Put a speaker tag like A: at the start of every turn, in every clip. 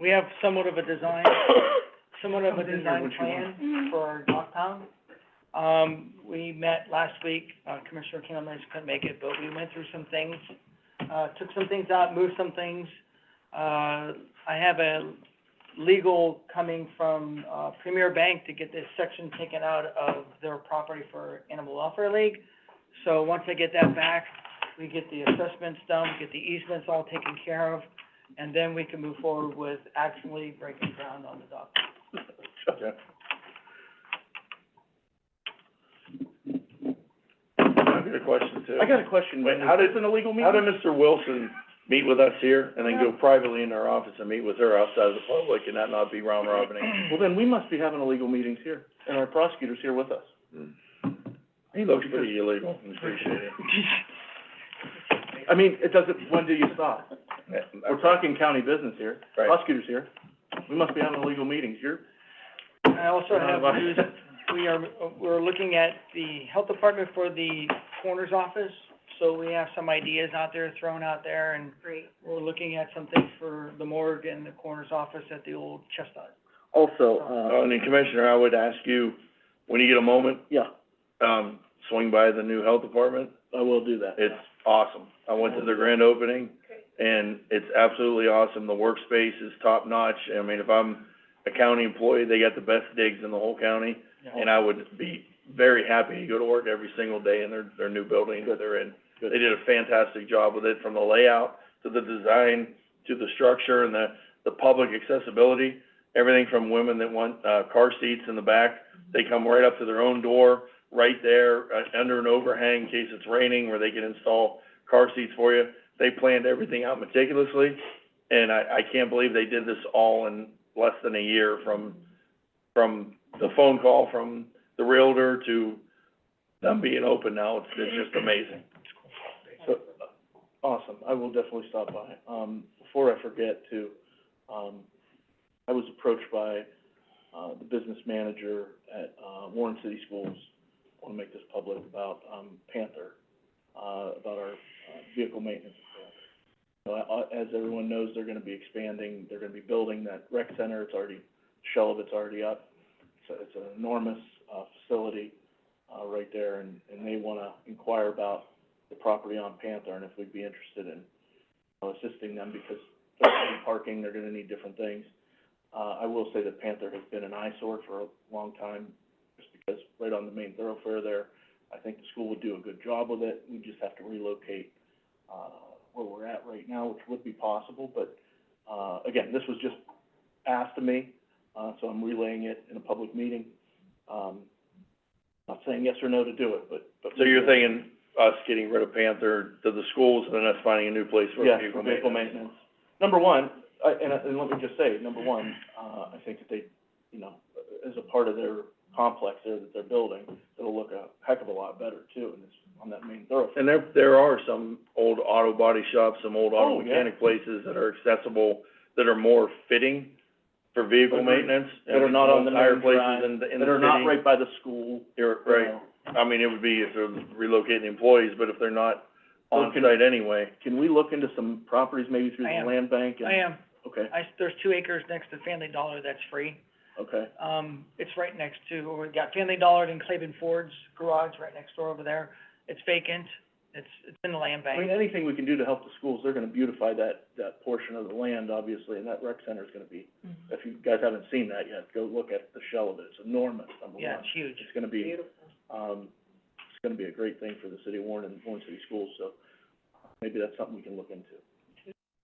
A: we have somewhat of a design, somewhat of a
B: Come in there,
A: design
B: what you
A: plan
B: want.
A: for our downtown. Um, we met last week, uh, Commissioner Canalis couldn't make it, but we went through some things, uh, took some things out, moved some things. Uh, I have a legal coming from, uh, Premier Bank to get this section taken out of their property for Animal Welfare League. So once I get that back, we get the assessments done, get the easements all taken care of, and then we can move forward with actually breaking ground on the dock.
B: Yeah. I've got a question too.
C: I got a question,
B: Wait,
C: when
B: how did-
C: is this an illegal meeting?
B: How did Mr. Wilson meet with us here and then go privately in our office and meet with her outside of the public and that not be round robining?
C: Well, then we must be having illegal meetings here, and our prosecutor's here with us.
B: Hmm. He looks pretty illegal, I appreciate it.
C: I mean, it doesn't, when do you stop? We're talking county business here,
B: Right.
C: prosecutor's here, we must be having illegal meetings, you're,
A: I also
C: you're
A: have
C: not
A: news,
C: invited.
A: we are, we're looking at the health department for the coroner's office, so we have some ideas out there, thrown out there, and
D: Great.
A: we're looking at some things for the morgue and the coroner's office at the old chestnut.
E: Also,
B: Uh,
E: uh,
B: and then Commissioner, I would ask you, when you get a moment,
E: yeah,
B: um, swing by the new health department.
C: I will do that.
B: It's awesome. I went to the grand opening, and it's absolutely awesome. The workspace is top-notch. I mean, if I'm a county employee, they got the best digs in the whole county, and I would be very happy to go to work every single day in their, their new building that they're in. They did a fantastic job with it, from the layout to the design, to the structure and the, the public accessibility. Everything from women that want, uh, car seats in the back, they come right up to their own door, right there, uh, under an overhang in case it's raining, where they can install car seats for you. They planned everything out meticulously, and I, I can't believe they did this all in less than a year from, from the phone call from the realtor to them being open now. It's, it's just amazing.
C: So, awesome, I will definitely stop by. Um, before I forget too, um, I was approached by, uh, the business manager at, uh, Warren City Schools. I wanna make this public about, um, Panther, uh, about our, uh, vehicle maintenance. at Panther. So, I- I- as everyone knows, they're gonna be expanding, they're gonna be building that rec center, it's already, shell of it's already up. So it's an enormous, uh, facility, uh, right there, and, and they wanna inquire about the property on Panther and if we'd be interested in, you know, assisting them because they're gonna need parking, they're gonna need different things. Uh, I will say that Panther has been an eyesore for a long time, just because right on the main thoroughfare there, I think the school would do a good job with it. We just have to relocate, uh, where we're at right now, which would be possible, but, uh, again, this was just asked to me, uh, so I'm relaying it in a public meeting. Um, not saying yes or no to do it, but, but.
B: So you're thinking us getting rid of Panther to the schools and then us finding a new place for
C: Yes,
B: vehicle
C: for vehicle
B: maintenance?
C: maintenance. Number one, I, and, and let me just say, number one, uh, I think that they, you know, as a part of their complex there that they're building, it'll look a heck of a lot better too, and it's on that main thoroughfare.
B: And there, there are some old auto body shops, some old auto
C: Oh, yeah.
B: mechanic places that are accessible, that are more fitting for vehicle
C: That are-
B: maintenance. and
C: That are not on the
B: higher
C: main
B: places
C: drive,
B: in the, in the city.
C: that are not right by the school,
B: You're
C: you
B: right.
C: know.
B: I mean, it would be if they're relocating employees, but if they're not on
C: Okay.
B: site anyway,
C: Can we look into some properties maybe through
A: I
C: the
A: am.
C: land bank and?
A: I am,
C: Okay,
A: I, there's two acres next to Family Dollar that's free.
C: okay,
A: Um, it's right next to, we've got Family Dollar and Claiborne Ford's garage right next door over there. It's vacant, it's, it's in the land
C: I mean,
A: bank.
C: anything we can do to help the schools, they're gonna beautify that, that portion of the land, obviously, and that rec center is gonna be, if you guys haven't seen that yet, go look at the shell of it, it's enormous, number one.
A: Yeah, it's huge.
C: It's gonna be, um, it's gonna be a great thing for the city of Warren and Warren City Schools, so maybe that's something we can look into.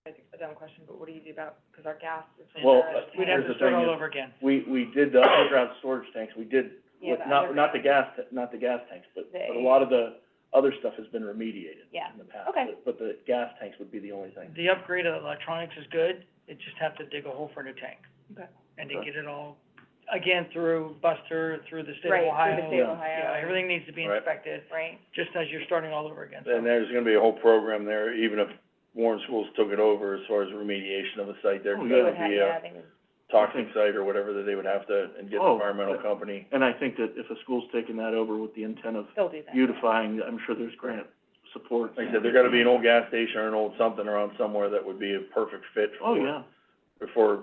D: I think it's a dumb question, but what do you do about, because our gas is.
C: Well, uh,
D: Yeah,
A: We'd have
C: Here's
A: to
C: the
A: start
C: thing
A: all
C: is-
A: over again.
C: We, we did the underground storage tanks, we did,
D: Yeah,
C: with,
D: the
C: not, not the
D: underground.
C: gas, ta- not the gas tanks, but, but
D: They-
C: a lot of the other stuff has been remediated
D: Yeah,
C: in the past.
D: okay.
C: but- But the gas tanks would be the only thing.
A: The upgrade of electronics is good, it just have to dig a hole for a new tank.
D: Okay.
A: And to
C: Okay.
A: get it all, again, through Buster, through the state of
D: Right,
A: Ohio.
D: through the state of
C: yeah.
D: Ohio.
A: Yeah, everything needs to be
B: Right.
A: inspected,
D: Right,
A: just as you're starting all over again,
B: then
A: so.
B: there's gonna be a whole program there, even if Warren Schools took it over as far as remediation of the uh, site there. 'cause
C: Oh,
D: they
B: that
D: would
B: would
D: have,
B: be a
D: yeah, they would,
B: toxic site or whatever that they would have to, and get the
C: Oh,
B: environmental
C: but-
B: company.
C: And I think that if a school's taking that over with the intent of
D: they'll do that.
C: beautifying, I'm sure there's grant support.
B: Like I said, there gotta be an old gas station or an old something around somewhere that would be a perfect fit for.
C: Oh, yeah.
B: For